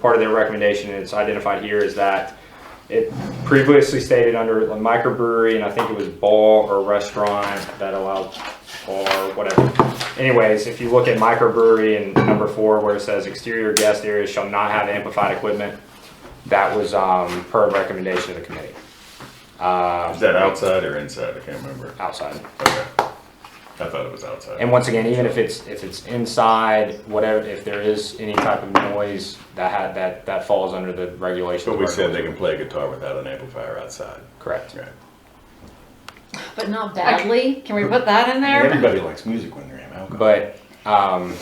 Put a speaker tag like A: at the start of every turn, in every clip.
A: part of their recommendation is identified here is that it previously stated under a microbrewery, and I think it was bar or restaurant that allowed or whatever. Anyways, if you look at microbrewery and number four where it says exterior guest areas shall not have amplified equipment, that was um, per recommendation of the committee. Uh,
B: Is that outside or inside? I can't remember.
A: outside.
B: Okay. I thought it was outside.
A: And once again, even if it's, if it's inside, whatever, if there is any type of noise, that had, that, that falls under the regulation.
B: But we said they can play guitar without an amplifier outside.
A: Correct.
B: Right.
C: But not badly. Can we put that in there?
B: Everybody likes music when they're in alcohol.
A: But, um,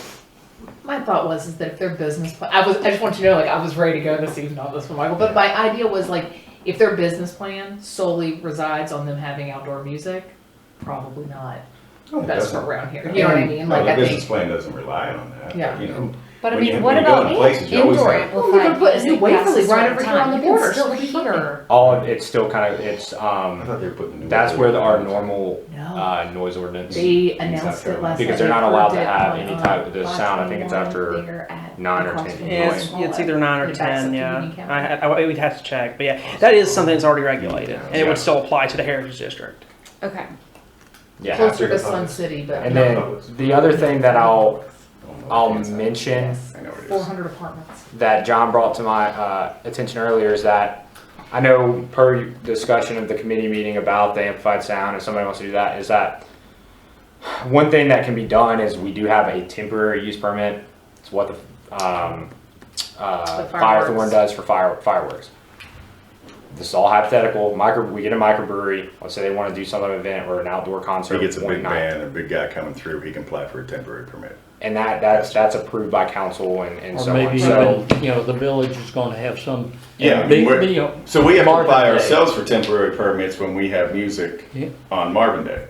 D: My thought was is that if their business, plan, I was, I just want you to know, like, I was ready to go this evening on this one, Michael. But my idea was like, if their business plan solely resides on them having outdoor music, probably not
B: No, Oh, it
D: best
B: doesn't.
D: for around here. You know what I mean? Like,
B: No, the
D: I
B: business
D: think.
B: plan doesn't rely on that.
D: Yeah.
B: You know,
C: But I
B: When you-
C: mean, what
B: when you go
C: about
B: in places, you always
C: indoor
B: have-
D: Well, we could
C: amplified
D: put a new
C: music past
D: Waverly right
C: a certain
D: over here
C: time?
D: on the
C: You can
D: border.
C: still
D: so we
C: hear.
D: hear.
A: all, of Oh, it's still kind of, it's,
B: I
A: um,
B: thought they were putting the new.
A: that's where the, our
B: ones.
A: normal,
D: No,
A: uh, noise ordinance.
D: they
B: South
D: announced it
B: Carolina.
D: last.
A: Because
D: night.
A: they're not
D: They
A: allowed to
D: approved it
A: have
D: on,
A: any
D: uh,
A: type of the
D: last
A: sound. I think it's
D: one,
A: after
D: bigger at
A: nine or
D: across
A: 10
D: from
A: feet
D: the
A: away.
E: Yeah, it's,
D: smaller.
E: it's either nine or
D: It backs up
E: ten.
D: to
E: Yeah,
D: community
E: I,
D: cabinet.
E: I, we'd have to check, but yeah, that is something that's already regulated, and it
A: Yeah.
E: would still apply to the heritage district.
C: Okay.
A: Yeah.
D: Closer
B: after
D: to
B: the
D: Sun
B: public.
D: City, but.
A: And then the other thing that I'll,
B: I don't know what
A: I'll
B: it's inside.
A: mention
B: I know what it
D: Four
B: is.
D: hundred apartments.
A: that John brought to my uh, attention earlier is that I know per discussion of the committee meeting about the amplified sound, if somebody wants to do that, is that one thing that can be done is we do have a temporary use permit. It's what the um, uh,
D: The
A: Firethorn
D: fireworks.
A: does for fire, fireworks. This is all hypothetical. Micro, we get a microbrewery. Let's say they want to do some other event or an outdoor concert.
B: He gets a
A: one
B: big
A: night.
B: band, a big guy coming through, he can apply for a temporary permit.
A: and that that's that's approved by council and, and so
F: Or maybe
A: on. So
F: even, you know, the village is gonna have some.
B: Yeah,
F: big
B: we're-
F: deal.
B: So we have to
F: Marvin
B: apply
F: Day.
B: ourselves for temporary permits when we have music
F: Yeah.
B: on Marvin Day.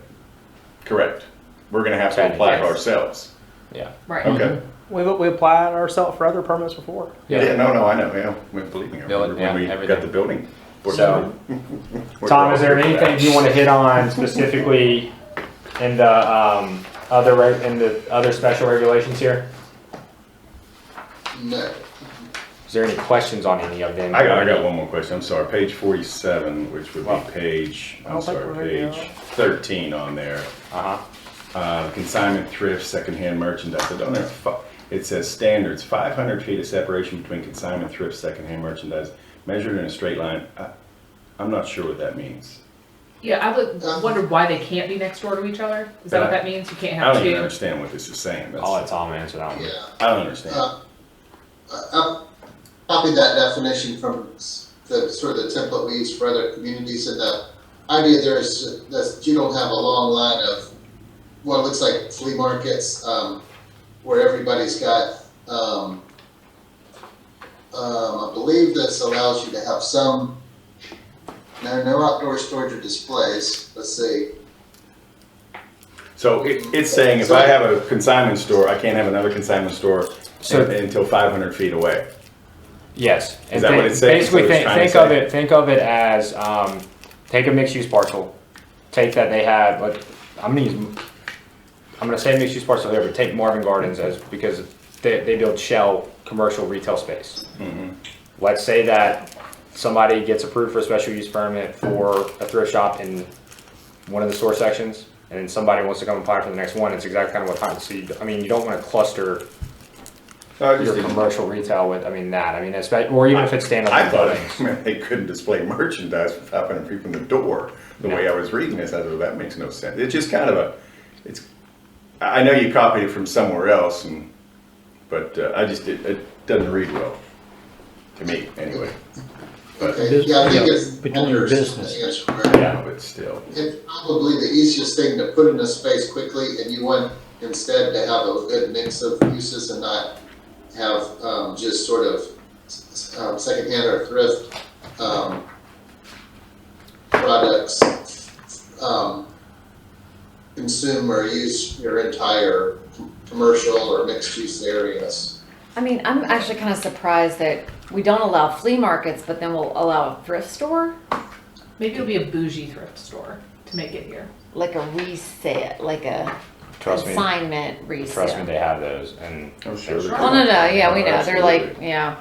B: Correct. We're gonna have to apply for
A: Yes.
B: ourselves.
A: yeah,
D: Right.
A: Mm-hmm.
B: Okay.
E: We we applied ourselves for other permits before.
B: Yeah, no, no, I know, yeah, we- believe me, I
A: Building,
B: remember when
A: yeah,
B: we got
A: everything.
B: the building. We're-
A: So,
B: we're
A: Tom, is there
B: all here
A: anything
B: for that.
A: you want to hit on specifically in the um, other reg- in the other special regulations here?
G: No.
A: Is there any questions on any of them?
B: I got, I got one more question, I'm sorry, page forty-seven, which would be page, I'm
E: don't think
B: sorry,
E: we're ready
B: page thirteen on there.
A: Uh huh.
B: Uh, consignment, thrift, secondhand merchandise, I don't know, if fu- it says standards, five hundred feet of separation between consignment, thrift, secondhand merchandise, measured in a straight line. I- I'm not sure what that means.
D: Yeah, I would wonder why they can't be next door to each other. Is that what that means? You can't
B: I
D: have
B: don't even
D: two?
B: understand what this is saying,
A: I'll let
B: that's,
A: Tom answer that one.
G: Yeah.
B: I don't understand.
G: Uh, I- I copied that definition from s- the sort of the template we use for other communities, and the idea there is that you don't have a long line of what looks like flea markets, um, where everybody's got, um, um, I believe this allows you to have some, no, no outdoor storage or displays, let's see.
B: So it, it's saying if I have a consignment store, I can't have another consignment store
A: So-
B: un- until five hundred feet away.
A: Yes. and
B: that
A: think-
B: what it's saying?
A: Basically,
B: Is that what
A: think, think
B: it's trying to
A: of
B: say?
A: it. Think of it as um, take a mixed-use parcel, take that they had. Like, I'm gonna use. I'm gonna say mixed-use parcel here, but take Marvin Gardens as because they, they build shell commercial retail space.
B: Mm-hmm.
A: Let's say that somebody gets approved for a special use permit for a thrift shop in one of the store sections, and then somebody wants to come apply for the next one. It's exactly kind of what happens. So you, I mean, you don't want to cluster your commercial retail with, I mean, that, I mean, especially, or even if it's
B: I
A: standalone buildings.
B: thought they couldn't display merchandise for five hundred feet from the door. The way I was reading this, I thought that makes no sense. It's just kind of a, it's. I I know you copied it from somewhere else, and but uh, I just it, it doesn't read well to me anyway. But
G: Okay, yeah, I think
F: yeah,
G: it's.
F: between your
G: vendors, I
F: business.
G: think it's where-
B: yeah, but still,
G: It's probably the easiest thing to put in a space quickly, and you want instead to have a good mix of uses and not have um, just sort of um, secondhand or thrift um, products um, consume or use your entire com- commercial or mixed use areas.
C: I mean, I'm actually kind of surprised that we don't allow flea markets, but then we'll allow a thrift store,
D: Maybe it'll be a bougie thrift store to make it here.
C: like a reset, like a
A: Trust me,
C: consignment reset.
A: trust me, they have those and.
B: I'm sure.
C: Well, no, no, yeah, we know. They're like, yeah,